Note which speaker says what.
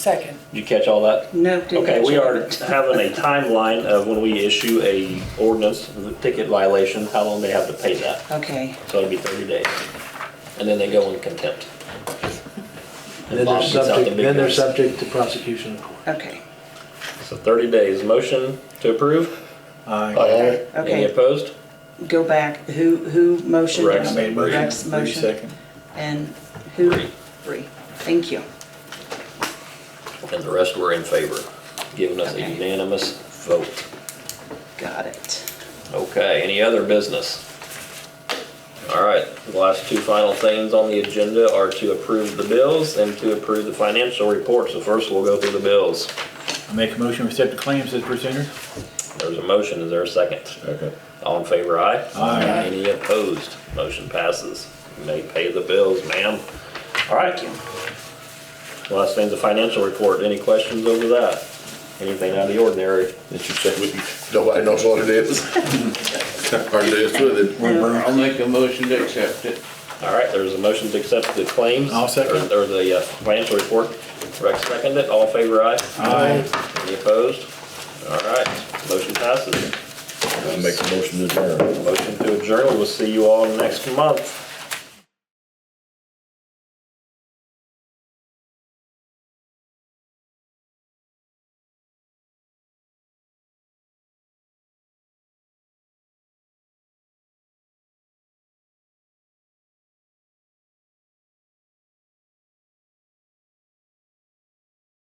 Speaker 1: Second.
Speaker 2: Did you catch all that?
Speaker 3: No. didn't
Speaker 2: Okay, we
Speaker 3: check
Speaker 2: are
Speaker 3: it.
Speaker 2: having a timeline of when we issue a ordinance, the ticket violation, how long they have to pay that.
Speaker 3: Okay,
Speaker 2: So it'll be thirty days. And then they go in contempt.
Speaker 4: And then they're
Speaker 2: Bob gets out the
Speaker 4: subject,
Speaker 2: big
Speaker 4: then they're
Speaker 2: guns.
Speaker 4: subject to prosecution in court.
Speaker 3: okay,
Speaker 2: So thirty days. Motion to approve?
Speaker 5: Aye.
Speaker 2: Any
Speaker 3: okay.
Speaker 2: opposed?
Speaker 3: Go back. Who, who motioned?
Speaker 2: Rex.
Speaker 5: I made a
Speaker 3: Rex
Speaker 5: motion, Lee
Speaker 3: motion.
Speaker 5: second.
Speaker 3: And who?
Speaker 2: Bree.
Speaker 3: Bree. Thank you.
Speaker 2: And the rest were in favor, giving us a
Speaker 3: Okay.
Speaker 2: unanimous vote.
Speaker 3: Got it.
Speaker 2: Okay, any other business? All right, the last two final things on the agenda are to approve the bills and to approve the financial reports. So first, we'll go through the bills.
Speaker 5: I make a motion, we accept the claims as presented.
Speaker 2: There's a motion, is there a second?
Speaker 5: Second.
Speaker 2: All in favor, aye?
Speaker 5: Aye.
Speaker 2: Any opposed? Motion passes. You may pay the bills, ma'am. All right. Last thing's the financial report. Any questions over that? Anything out of the ordinary?
Speaker 6: that you said, we- nobody knows what it is. Hard to do with it.
Speaker 7: I'll make a motion to accept it.
Speaker 2: All right, there's a motion to accept the claims.
Speaker 5: I'll second.
Speaker 2: Or or the uh, financial report. Rex seconded, all in favor, aye? Any opposed? All right, motion passes.
Speaker 6: I make a motion to adjourn.
Speaker 2: Motion to adjourn, we'll see you all next month.